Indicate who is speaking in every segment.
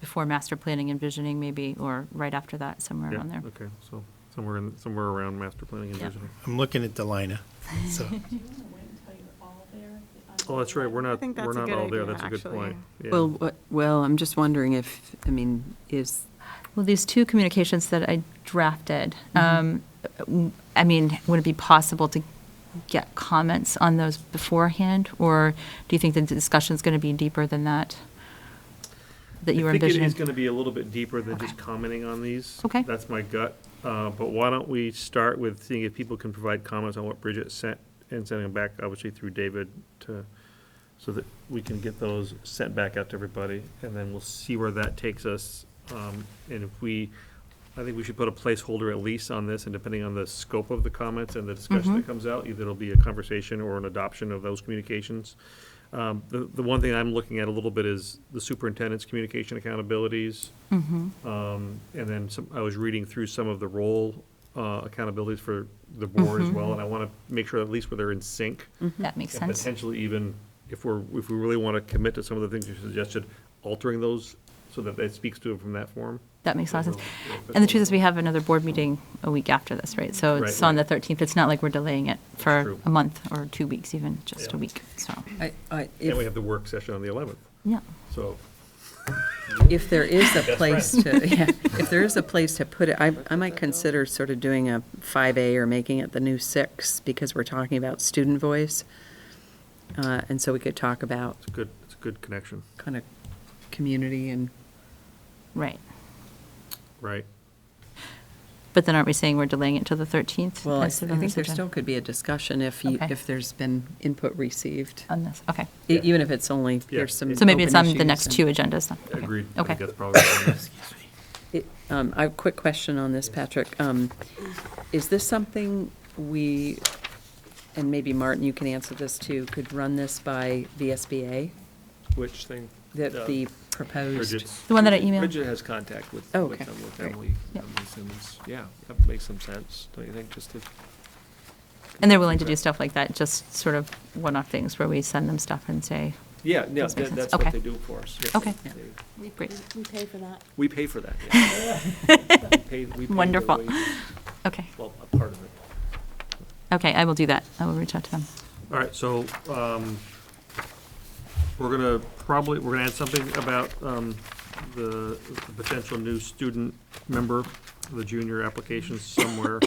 Speaker 1: before master planning and visioning maybe, or right after that, somewhere
Speaker 2: Yeah,
Speaker 1: around there.
Speaker 2: Okay, so somewhere in, somewhere around master planning and
Speaker 1: Yeah.
Speaker 2: visioning.
Speaker 3: I'm looking at Delina, so.
Speaker 4: Do you want to wait until you're all there?
Speaker 2: Oh, that's right, we're not,
Speaker 5: think
Speaker 2: we're
Speaker 5: that's a
Speaker 2: not
Speaker 5: good
Speaker 2: all there,
Speaker 5: idea,
Speaker 2: that's a good
Speaker 5: actually.
Speaker 2: point. Yeah.
Speaker 6: Well, what- well, I'm just wondering if, I mean, is,
Speaker 1: Well, these two communications that I drafted,
Speaker 2: Mm-hmm.
Speaker 1: um, w- I mean, would it be possible to get comments on those beforehand? Or do you think the discussion's going to be deeper than that? That you were
Speaker 2: I think it
Speaker 1: envisioning?
Speaker 2: is going to be a little bit deeper than
Speaker 1: Okay.
Speaker 2: just commenting on these.
Speaker 1: Okay.
Speaker 2: That's my gut. Uh, But why don't we start with seeing if people can provide comments on what Bridget sent and sending them back, obviously through David, to, so that we can get those sent back out to everybody. And then we'll see where that takes us. Um, And if we, I think we should put a placeholder at least on this, and depending on the scope of the comments and the discussion
Speaker 1: Mm-hmm.
Speaker 2: that comes out, either it'll be a conversation or an adoption of those communications. Um, The, the one thing I'm looking at a little bit is the superintendent's communication accountabilities.
Speaker 1: Mm-hmm.
Speaker 2: Um, And then some, I was reading through some of the role uh, accountabilities for the board as well, and I want to make sure at least where they're in sync.
Speaker 1: That Mm-hmm. makes
Speaker 2: And
Speaker 1: sense.
Speaker 2: potentially even, if we're, if we really want to commit to some of the things you suggested, altering those so that it speaks to it from that form.
Speaker 1: That makes a lot of sense.
Speaker 2: Yeah, but-
Speaker 1: And the truth is, we have another board meeting a week after this, right? So it's
Speaker 2: Right,
Speaker 1: on the
Speaker 2: right.
Speaker 1: 13th. It's not like we're delaying it for
Speaker 2: true.
Speaker 1: a month or two weeks, even, just
Speaker 2: Yeah.
Speaker 1: a week, so,
Speaker 6: I- I-
Speaker 2: And we
Speaker 6: if,
Speaker 2: have the work session on the 11th,
Speaker 1: yeah.
Speaker 2: so.
Speaker 6: if there is a place to, yeah, if there is a place to put it, I, I might consider sort of doing a 5A or making it the new 6, because we're talking about student voice. Uh, And so we could talk about
Speaker 2: It's a good, it's a good connection,
Speaker 6: kind of community and,
Speaker 1: Right.
Speaker 2: right?
Speaker 1: But then aren't we saying we're delaying it till the 13th?
Speaker 6: well, I I
Speaker 1: That's on
Speaker 6: think
Speaker 1: this
Speaker 6: there
Speaker 1: agenda.
Speaker 6: still could be a discussion if, you-
Speaker 1: Okay.
Speaker 6: if there's been input received,
Speaker 1: On this, okay.
Speaker 6: E- even if it's only, there's some
Speaker 1: So maybe it's
Speaker 6: open
Speaker 1: on the
Speaker 6: issues
Speaker 1: next
Speaker 6: and-
Speaker 1: two agendas then? Okay.
Speaker 2: Agreed. I think
Speaker 1: Okay.
Speaker 2: That's probably.
Speaker 6: It- um, I have a quick question on this, Patrick. Um, Is this something we, and maybe Martin, you can answer this too, could run this by VSBA?
Speaker 7: Which thing?
Speaker 6: That
Speaker 7: Uh,
Speaker 6: the proposed,
Speaker 2: Bridget's-
Speaker 1: The one that I emailed?
Speaker 7: Bridget has contact with,
Speaker 6: Oh,
Speaker 7: with
Speaker 6: okay,
Speaker 7: them, with
Speaker 6: great.
Speaker 7: Emily,
Speaker 1: Yep.
Speaker 7: Emily Simmons. Yeah, that makes some sense, don't you think, just to.
Speaker 1: And they're willing to do stuff like that, just sort of one-off things where we send them stuff and say,
Speaker 7: Yeah, yeah,
Speaker 1: Does make
Speaker 7: that-
Speaker 1: sense.
Speaker 7: that's
Speaker 1: Okay.
Speaker 7: what they do for us. yes.
Speaker 1: Okay.
Speaker 7: They-
Speaker 4: We
Speaker 1: Great.
Speaker 4: we pay for that.
Speaker 7: We pay for that. yeah. We pay- we pay their
Speaker 1: Wonderful.
Speaker 7: wages,
Speaker 1: okay,
Speaker 7: Well, a part of it.
Speaker 1: okay, I will do that. I will reach out to them.
Speaker 2: All right, so, um, we're gonna probably, we're gonna add something about, um, the the potential new student member, the junior applications somewhere.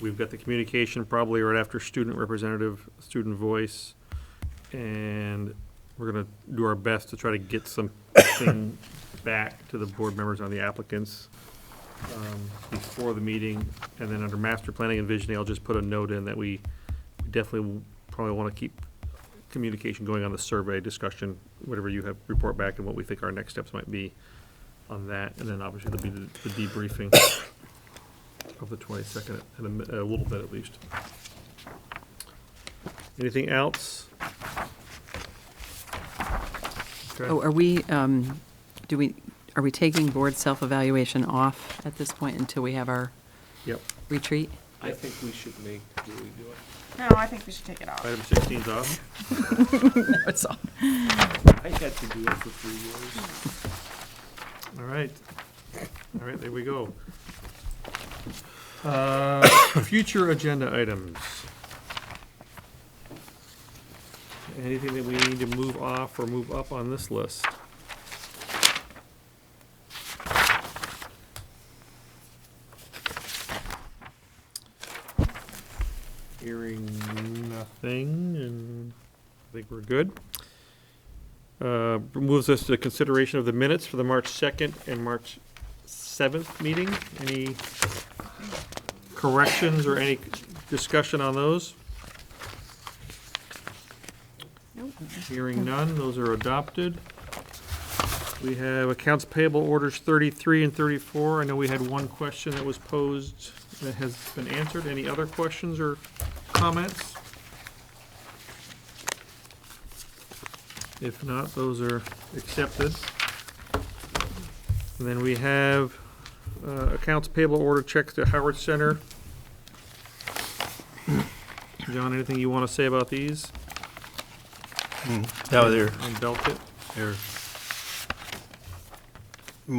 Speaker 2: We've got the communication probably right after student representative, student voice, and we're gonna do our best to try to get something back to the board members on the applicants um, before the meeting, and then under master planning and visioning, I'll just put a note in that we definitely probably want to keep communication going on the survey discussion, whatever you have, report back and what we think our next steps might be on that, and then obviously there'll be the the debriefing of the twenty-second, in a mi- a little bit at least. Anything else? Okay.
Speaker 6: oh, are we, um, do we, are we taking board self-evaluation off at this point until we have our
Speaker 2: Yep,
Speaker 6: retreat?
Speaker 7: I think we should make, do we do it?
Speaker 5: No, I think we should take it off.
Speaker 2: item sixteen's off.
Speaker 6: That's all.
Speaker 7: I had to do it for three years.
Speaker 2: All right. All right, there we go. Uh, Future agenda items. Anything that we need to move off or move up on this list? Hearing nothing, and I think we're good. Uh, Moves us to consideration of the minutes for the March 2nd and March 7th meeting. Any corrections or any discussion on those? Hearing none, those are adopted. We have accounts payable orders 33 and 34. I know we had one question that was posed that has been answered. Any other questions or comments? If not, those are accepted. And then we have uh, accounts payable order checks to Howard Center. John, anything you want to say about these?
Speaker 3: No, they're,
Speaker 2: And Belkit?
Speaker 3: they're